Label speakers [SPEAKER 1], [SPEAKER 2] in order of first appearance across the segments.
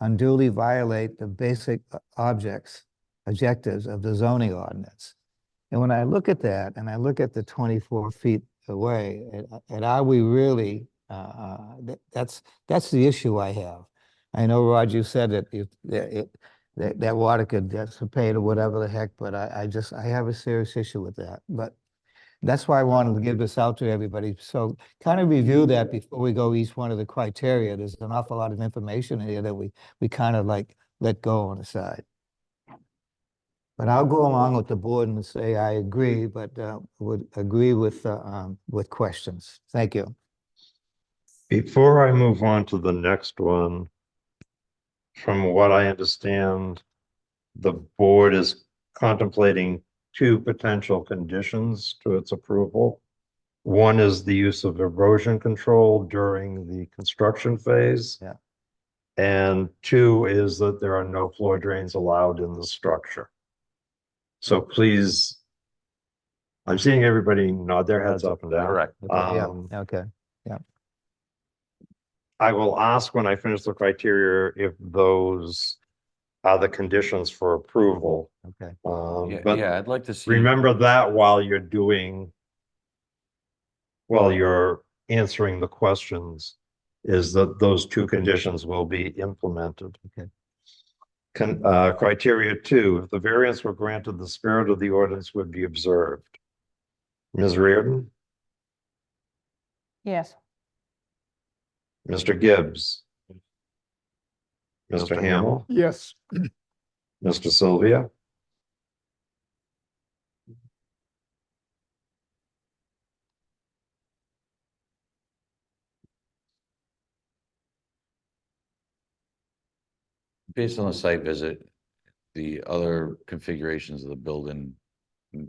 [SPEAKER 1] unduly violate the basic o- objects, objectives of the zoning ordinance. And when I look at that, and I look at the twenty-four feet away, and- and are we really, uh, uh, that- that's, that's the issue I have. I know, Rod, you said that if, that it, that, that water could dissipate or whatever the heck, but I, I just, I have a serious issue with that, but that's why I wanted to give this out to everybody, so kind of review that before we go each one of the criteria, there's an awful lot of information here that we, we kind of like let go on the side. But I'll go along with the board and say I agree, but, uh, would agree with, uh, um, with questions, thank you.
[SPEAKER 2] Before I move on to the next one, from what I understand, the board is contemplating two potential conditions to its approval. One is the use of erosion control during the construction phase.
[SPEAKER 1] Yeah.
[SPEAKER 2] And two is that there are no floor drains allowed in the structure. So please, I'm seeing everybody nod their heads up and down.
[SPEAKER 3] Correct.
[SPEAKER 1] Okay, yeah,
[SPEAKER 2] Um,
[SPEAKER 1] Okay,
[SPEAKER 2] I will ask when I finish the criteria if those are the conditions for approval.
[SPEAKER 1] okay,
[SPEAKER 2] Um,
[SPEAKER 3] Yeah, yeah,
[SPEAKER 2] but
[SPEAKER 3] I'd like to see.
[SPEAKER 2] remember that while you're doing, while you're answering the questions, is that those two conditions will be implemented.
[SPEAKER 1] Okay.
[SPEAKER 2] Con, uh, criteria two, if the variance were granted, the spirit of the ordinance would be observed. Ms. Reardon,
[SPEAKER 4] Yes,
[SPEAKER 2] Mr. Gibbs. Mr. Hamel.
[SPEAKER 5] Yes.
[SPEAKER 2] Mr. Sylvia?
[SPEAKER 3] Based on the site visit, the other configurations of the building mm,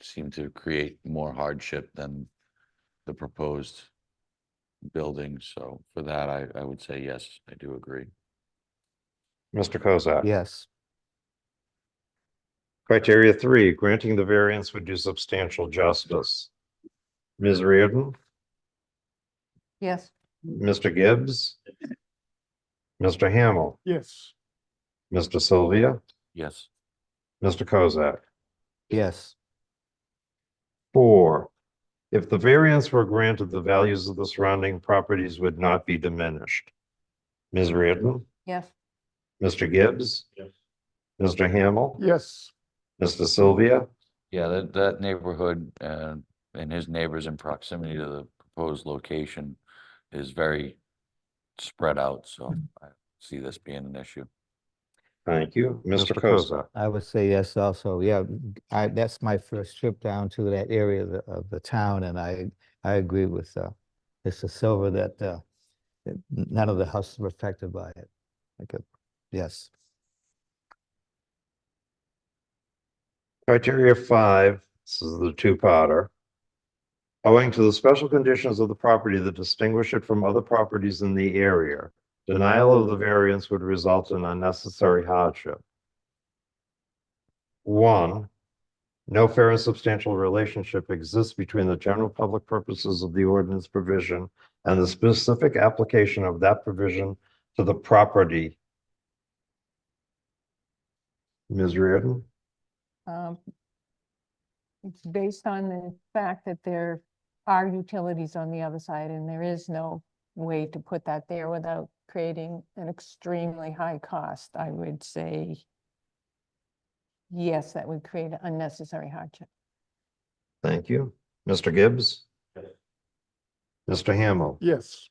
[SPEAKER 3] seem to create more hardship than the proposed building, so for that, I, I would say yes, I do agree.
[SPEAKER 2] Mr. Kozak?
[SPEAKER 1] yes,
[SPEAKER 2] Criteria three, granting the variance would do substantial justice. Ms. Reardon?
[SPEAKER 4] yes,
[SPEAKER 2] Mr. Gibbs? Mr. Hamel?
[SPEAKER 5] Yes.
[SPEAKER 2] Mr. Sylvia?
[SPEAKER 3] Yes,
[SPEAKER 2] Mr. Kozak?
[SPEAKER 1] yes,
[SPEAKER 2] Four, if the variance were granted, the values of the surrounding properties would not be diminished. Ms. Reardon?
[SPEAKER 4] yes,
[SPEAKER 2] Mr. Gibbs? Mr. Hamel?
[SPEAKER 5] Yes.
[SPEAKER 2] Mr. Sylvia?
[SPEAKER 3] yeah, that, that neighborhood, uh, and his neighbors in proximity to the proposed location is very spread out, so I see this being an issue.
[SPEAKER 2] Thank you. Mr. Kozak?
[SPEAKER 1] I would say yes also, yeah, g- I, that's my first trip down to that area of the, of the town, and I, I agree with, uh, Mr. Silver that, uh, that n- none of the houses were affected by it. Okay, yes,
[SPEAKER 2] Criteria five, this is the two-potter. Owing to the special conditions of the property that distinguish it from other properties in the area, denial of the variance would result in unnecessary hardship. One, no fair and substantial relationship exists between the general public purposes of the ordinance provision and the specific application of that provision to the property. Ms. Reardon?
[SPEAKER 4] um. It's based on the fact that there are utilities on the other side and there is no way to put that there without creating an extremely high cost, I would say. Yes, that would create unnecessary hardship.
[SPEAKER 2] Thank you. Mr. Gibbs? Mr. Hamel?
[SPEAKER 5] Yes.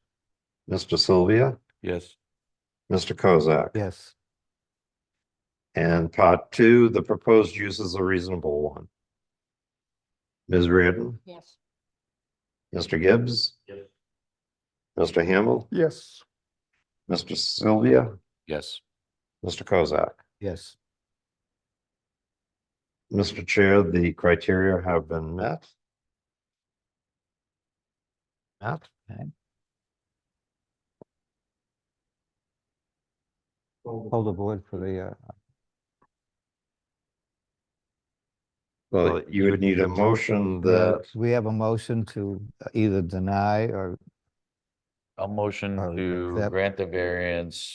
[SPEAKER 2] Mr. Sylvia?
[SPEAKER 3] Yes.
[SPEAKER 2] Mr. Kozak?
[SPEAKER 1] yes,
[SPEAKER 2] And part two, the proposed use is a reasonable one. Ms. Reardon?
[SPEAKER 4] Yes.
[SPEAKER 2] Mr. Gibbs? Mr. Hamel?
[SPEAKER 5] Yes.
[SPEAKER 2] Mr. Sylvia?
[SPEAKER 3] Yes.
[SPEAKER 2] Mr. Kozak?
[SPEAKER 1] yes,
[SPEAKER 2] Mr. Chair, the criteria have been met. Matt?
[SPEAKER 1] hold the board for the, uh,
[SPEAKER 2] Well, you would need a motion that,
[SPEAKER 1] We have a motion to uh, either deny or
[SPEAKER 3] A motion
[SPEAKER 1] Or
[SPEAKER 3] to
[SPEAKER 1] accept.
[SPEAKER 3] grant the variance